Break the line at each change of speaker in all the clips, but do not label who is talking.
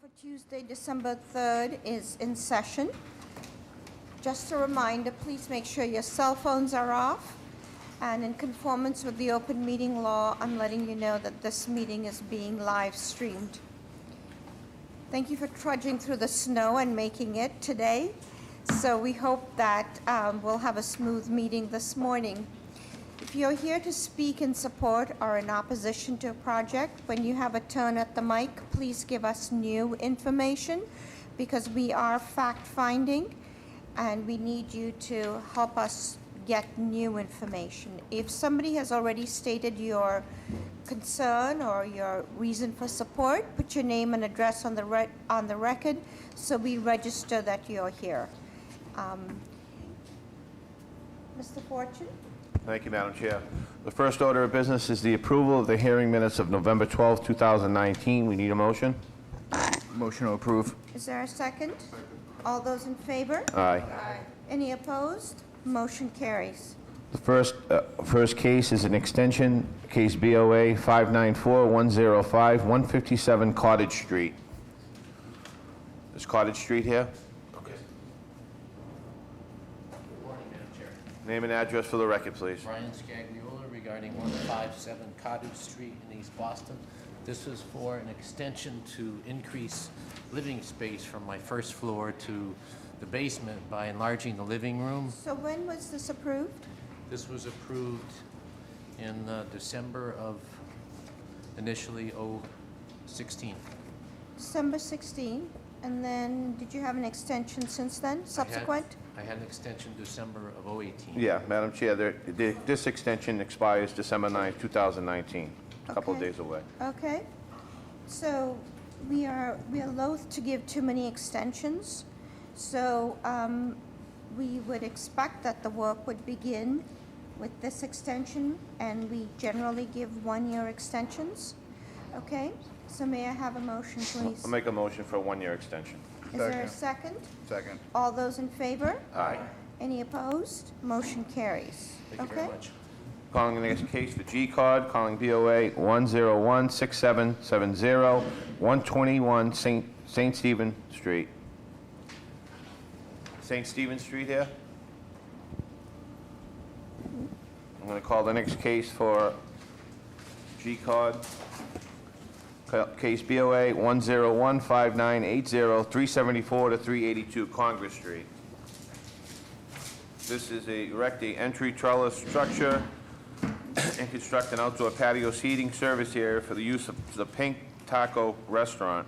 for Tuesday, December 3rd is in session. Just a reminder, please make sure your cell phones are off. And in conformance with the open meeting law, I'm letting you know that this meeting is being live streamed. Thank you for trudging through the snow and making it today. So we hope that um, we'll have a smooth meeting this morning. If you're here to speak in support or in opposition to a project, when you have a turn at the mic, please give us new information because we are fact-finding and we need you to help us get new information. If somebody has already stated your concern or your reason for support, put your name and address on the re- on the record so we register that you're here. Um, Mr. Fortune?
Thank you, Madam Chair. The first order of business is the approval of the hearing minutes of November 12, 2019. We need a motion?
Motion to approve.
Is there a second? All those in favor?
Aye.
Any opposed? Motion carries.
The first, uh, first case is an extension, case BOA 594-105-157 Cottage Street. Is Cottage Street here? Okay. Name and address for the record, please.
Brian Scagliola regarding 157 Cottage Street in East Boston. This is for an extension to increase living space from my first floor to the basement by enlarging the living room.
So when was this approved?
This was approved in uh, December of initially 016.
December 16, and then did you have an extension since then,
I had-
subsequent?
I had an extension December of 018.
Yeah, Madam Chair, there- the- this extension expires December 9, 2019, a couple of
Okay.
days away.
Okay, so we are, we are loath to give too many extensions, so um, we would expect that the work would begin with this extension, and we generally give one-year extensions, okay? So may I have a motion, please?
I'll make a motion for a one-year extension.
Is there a second?
Second.
All those in favor?
Aye.
Any opposed? Motion carries.
Thank you very
Okay?
much.
Calling the next case for G-Card, calling BOA 101-6770, 121 St. St. Stephen Street. St. Stephen Street here? I'm going to call the next case for G-Card, Ca- case BOA 101-5980, 374 to 382 Congress Street. This is a erect a entry trellis structure and construct an outdoor patio seating service area for the use of the Pink Taco Restaurant.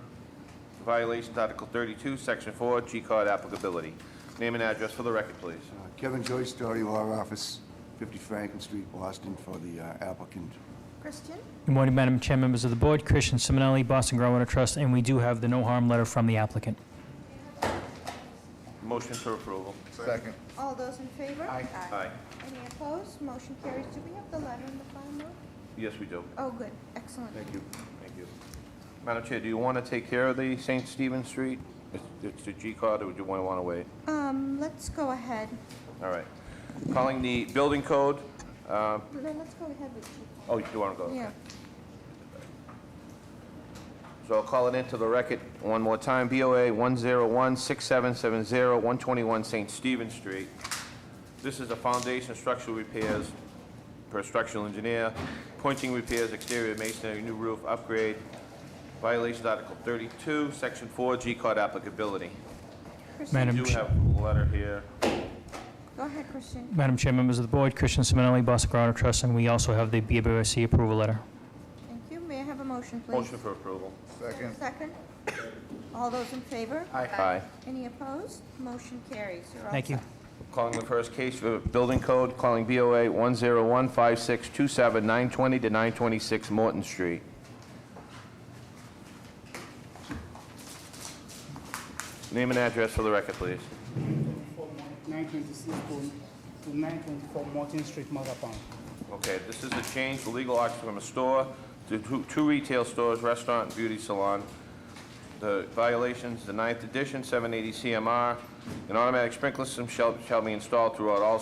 Violation Article 32, Section 4, G-Card applicability. Name and address for the record, please.
Uh, Kevin Joyce, Doherty Law Office, 50 Franklin Street, Boston, for the uh, applicant.
Christian?
Good morning, Madam Chair, members of the board. Christian Simonelli, Boston Groundwater Trust, and we do have the no harm letter from the applicant.
Motion for approval.
Second.
All those in favor? Aye.
Aye.
Any opposed? Motion carries. Do we have the letter in the file now?
Yes, we do.
Oh, good, excellent.
Thank you. Thank you. Madam Chair, do you want to take care of the St. Stephen Street? It's- It's the G-Card, or would you want to wait?
Um, let's go ahead.
All right. Calling the building code, uh,
No, let's go ahead with G.
oh, you want to go? Okay.
Yeah.
So I'll call it into the record one more time. BOA 101-6770-121 St. Stephen Street. This is a foundation structural repairs per structural engineer, pointing repairs, exterior masonry, new roof upgrade, violation Article 32, Section 4, G-Card applicability. We
Christian,
do
Madam, Ch-
have a letter here.
go ahead, Christian.
Madam Chair, members of the board, Christian Simonelli, Boston Groundwater Trust, and we also have the BOC approval letter.
Thank you. May I have a motion, please?
Motion for approval.
Second.
Second? All those in favor?
Aye.
Any opposed? Motion carries. You're all
Thank you.
set.
Calling the first case for building code, calling BOA 101-5627, 920 to 926 Morton Street. Name and address for the record, please.
926 to to 924 Martin Street, Mattapan.
Okay, this is a change, the legal occupancy from a store to two- two retail stores, restaurant, and beauty salon. The violations, the ninth edition, 780 CMR, an automatic sprinkler system shall shall be installed throughout all